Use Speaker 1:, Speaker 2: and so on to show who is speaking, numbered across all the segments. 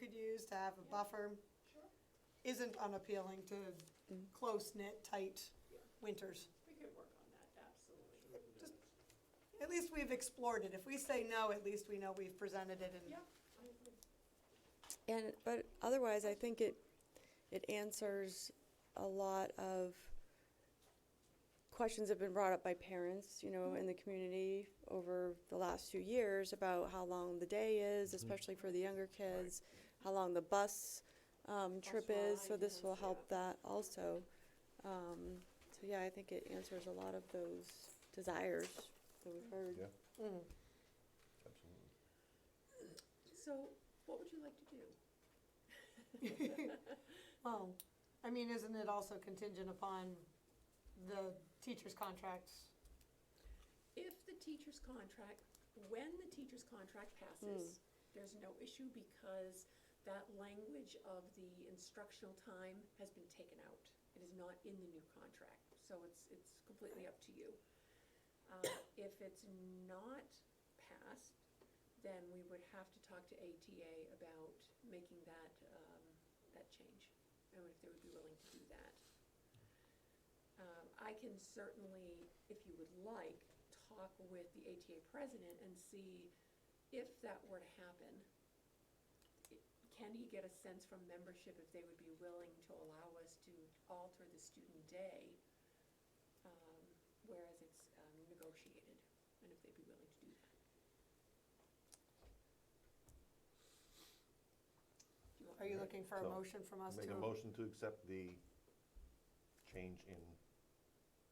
Speaker 1: is to have a buffer
Speaker 2: Sure,
Speaker 1: isn't unappealing to close-knit, tight winters.
Speaker 2: we could work on that, absolutely.
Speaker 1: Just- At least we've explored it. If we say no, at least we know we've presented it and
Speaker 2: Yeah, I agree.
Speaker 3: And, but otherwise, I think it, it answers a lot of questions that have been brought up by parents, you know, in the community over the last few years about how long the day is, especially for the younger kids, how long the bus, um, trip is, so this will help that also. Um, so yeah, I think it answers a lot of those desires that we've heard.
Speaker 4: Yeah.
Speaker 1: Mm.
Speaker 4: Absolutely.
Speaker 2: So, what would you like to do?
Speaker 1: Well, I mean, isn't it also contingent upon the teacher's contracts?
Speaker 2: If the teacher's contract, when the teacher's contract passes, there's no issue because that language of the instructional time has been taken out. It is not in the new contract, so it's, it's completely up to you. Uh, If it's not passed, then we would have to talk to ATA about making that, um, that change, and if they would be willing to do that. Um, I can certainly, if you would like, talk with the ATA president and see if that were to happen. i- Can he get a sense from membership if they would be willing to allow us to alter the student day, um, whereas it's, um, negotiated, and if they'd be willing to do that? Do you want
Speaker 1: Are you looking for a
Speaker 4: So,
Speaker 1: motion from us
Speaker 4: Make a
Speaker 1: to,
Speaker 4: motion to accept the change in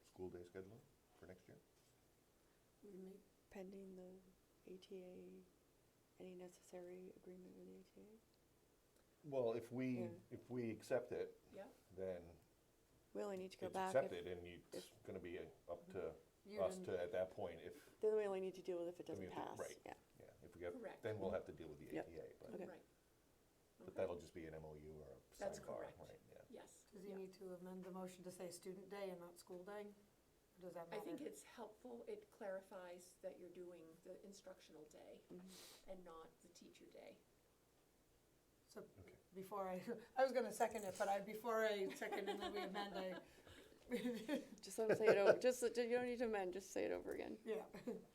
Speaker 4: school day schedule for next year?
Speaker 3: pending the ATA, any necessary agreement with the ATA?
Speaker 4: Well, if we,
Speaker 3: Yeah.
Speaker 4: if we accept it,
Speaker 2: Yeah,
Speaker 4: then
Speaker 3: We only need to go
Speaker 4: it's
Speaker 3: back. if-
Speaker 4: accepted and you- it's
Speaker 3: if- Mhm.
Speaker 4: gonna be up to
Speaker 1: you
Speaker 4: us
Speaker 1: didn't-
Speaker 4: to, at that point, if,
Speaker 3: Then we only need to deal with if it
Speaker 4: Then we
Speaker 3: doesn't
Speaker 4: have to-
Speaker 3: pass.
Speaker 4: right.
Speaker 3: Yeah.
Speaker 4: yeah, if we get,
Speaker 2: Correct.
Speaker 4: then we'll have to deal with the
Speaker 3: Yep.
Speaker 4: ATA. But
Speaker 3: Okay.
Speaker 2: right.
Speaker 4: but
Speaker 2: Okay.
Speaker 4: that'll just be an MOU or a
Speaker 2: That's
Speaker 4: sidebar,
Speaker 2: correct.
Speaker 4: right, yeah.
Speaker 2: Yes.
Speaker 1: does he
Speaker 2: yeah.
Speaker 1: need to amend the motion to say student day and not school day? Or Does that
Speaker 2: I
Speaker 1: matter?
Speaker 2: think it's helpful, it clarifies that you're doing the instructional day
Speaker 3: Mhm.
Speaker 2: and not the teacher day.
Speaker 1: So
Speaker 4: Okay.
Speaker 1: before I, I was gonna second it, but I, before I second and then we amend, I,
Speaker 3: Just let them say it over. Just, let- you don't need to amend, just say it over again.
Speaker 1: yeah.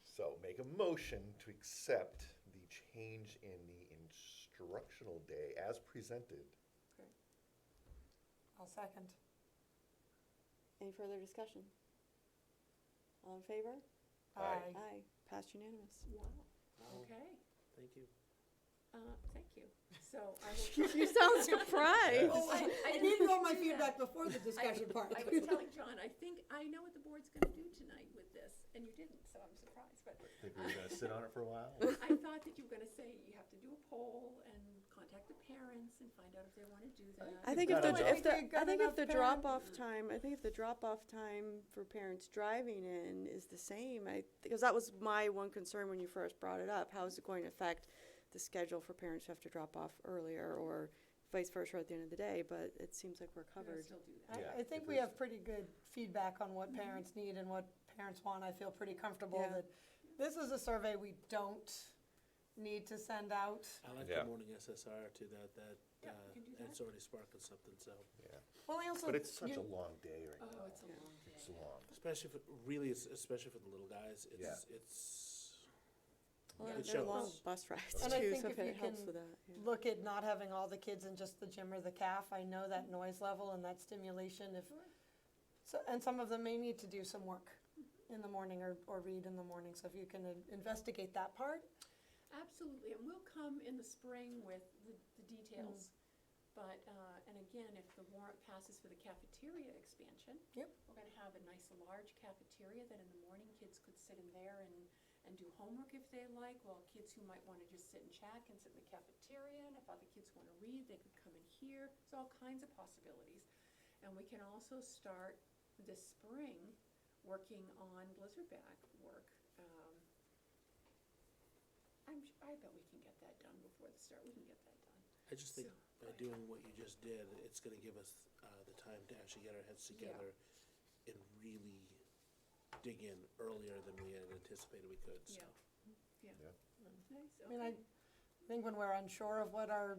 Speaker 4: So make a motion to accept the change in the instructional day as presented.
Speaker 1: I'll second.
Speaker 3: Any further discussion? All in favor?
Speaker 4: Aye.
Speaker 1: Mm.
Speaker 3: Aye. Passed unanimous.
Speaker 2: Wow,
Speaker 5: Wow,
Speaker 2: okay,
Speaker 5: Thank you.
Speaker 2: uh, thank you. So I will.
Speaker 3: You sound surprised.
Speaker 2: Oh, I,
Speaker 1: I
Speaker 2: I didn't
Speaker 1: needed all my
Speaker 2: think to do that.
Speaker 1: feedback before the discussion part.
Speaker 2: I was telling John, I think I know what the board's gonna do tonight with this, and you didn't, so I'm surprised, but
Speaker 4: Think we were gonna sit on it for a while?
Speaker 2: I thought that you were gonna say you have to do a poll and contact the parents and find out if they wanna do that.
Speaker 3: I think
Speaker 4: We've
Speaker 3: if the,
Speaker 4: got
Speaker 3: if
Speaker 1: enough.
Speaker 3: the, I think if
Speaker 1: Enough
Speaker 3: the
Speaker 1: parent-
Speaker 3: drop-off time, I think if the drop-off time for parents driving in is the same, I, because that was my one concern when you first brought it up. How is it going to affect the schedule for parents who have to drop off earlier or vice versa at the end of the day? But it seems like we're
Speaker 2: We're gonna
Speaker 3: covered.
Speaker 2: still do that.
Speaker 4: Yeah,
Speaker 1: I, I think we
Speaker 4: because-
Speaker 1: have pretty good feedback on
Speaker 2: Mm-hmm.
Speaker 1: what parents need and what parents want. I feel pretty comfortable
Speaker 3: Yeah.
Speaker 1: that this is a survey we don't need to send out.
Speaker 5: I like
Speaker 4: Yeah.
Speaker 5: the morning SSR too, that, that,
Speaker 2: Yeah,
Speaker 5: uh,
Speaker 2: we can do
Speaker 5: that's already sparking something, so.
Speaker 4: Yeah,
Speaker 1: Well, I also.
Speaker 4: but it's such
Speaker 1: you-
Speaker 4: a long day right now.
Speaker 2: Oh, it's a long day.
Speaker 4: It's long.
Speaker 5: Especially for, really, es- especially for the little guys, it's, it's,
Speaker 3: Well,
Speaker 2: Yeah.
Speaker 3: and
Speaker 5: it
Speaker 3: they're long
Speaker 5: shows.
Speaker 3: bus rides
Speaker 1: And I
Speaker 3: too,
Speaker 1: think
Speaker 3: so
Speaker 1: if
Speaker 3: if it
Speaker 1: you
Speaker 3: helps
Speaker 1: can-
Speaker 3: with that. yeah.
Speaker 1: Look at not having all the kids in just the gym or the calf. I know that noise level and that stimulation if,
Speaker 2: Sure.
Speaker 1: so, and some of them may need to do some work in the morning or, or read in the morning. So if you can in- investigate that part,
Speaker 2: Absolutely, and we'll come in the spring with the, the details. But, uh, and again, if the warrant passes for the cafeteria expansion.
Speaker 1: Yep.
Speaker 2: We're gonna have a nice large cafeteria that in the morning kids could sit in there and, and do homework if they like, while kids who might wanna just sit and chat can sit in the cafeteria, and if other kids wanna read, they could come in here. There's all kinds of possibilities. And we can also start this spring working on Blizzard Bag work, um, I'm, su- I bet we can get that done before the start, we can get that done.
Speaker 5: I just think
Speaker 2: So,
Speaker 5: by doing what you just did, it's gonna give us, uh, the time to actually get our heads
Speaker 2: Yeah.
Speaker 5: together and really dig in earlier than we had anticipated we could, so.
Speaker 2: Yeah, yeah.
Speaker 4: Yeah.
Speaker 2: Nice,
Speaker 1: I mean, I
Speaker 2: okay.
Speaker 1: think when we're unsure of what our